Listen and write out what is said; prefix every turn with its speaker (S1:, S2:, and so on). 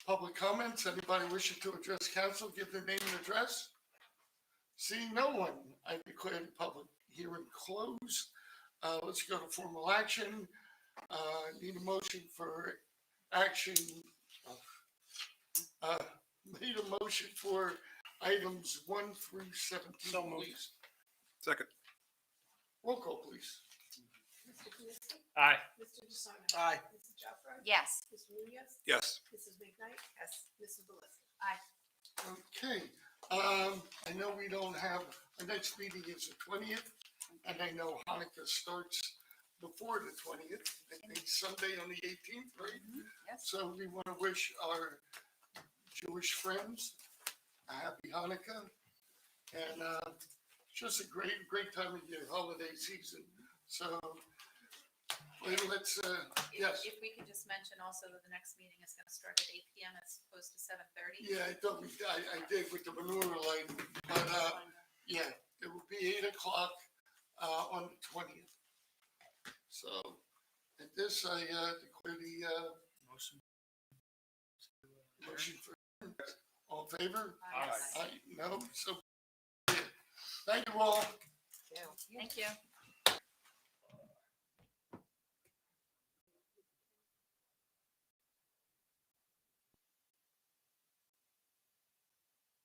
S1: Public comments, anybody wishing to address council, give their name and address. Seeing no one, I declare the public hearing closed. Uh, let's go to formal action. Uh, need a motion for action. Uh, need a motion for items one through
S2: So
S1: seventeen,
S2: moved.
S1: please.
S3: Second.
S1: Roll call, please.
S4: Mr. Kaminsky?
S2: Aye.
S4: Mr. DeSarno?
S2: Aye.
S4: Mrs. Jeffrey?
S5: Yes.
S4: Mr. Munoz?
S3: Yes.
S4: Mrs. McKnight? Yes. Mrs. Belisca?
S1: Okay, um, I know we don't have, our next meeting is the twentieth, and I know Hanukkah starts before the twentieth, I think Sunday on the eighteenth, right?
S5: yes.
S1: So we want to wish our Jewish friends a happy Hanukkah, and, uh, just a great, great time of year, holiday season, so let- let's, uh,
S6: If-
S1: yes,
S6: If we could just mention also that the next meeting is gonna start at eight PM as opposed to seven thirty.
S1: yeah, I thought we, I, I did with the manure lighting, but, uh, Yeah, it will be eight o'clock, uh, on the twentieth. So at this, I, uh, declare the, uh,
S2: Motion.
S1: motion for, all in favor?
S2: Aye.
S1: I, no, so. Thank you all.
S5: Thank you.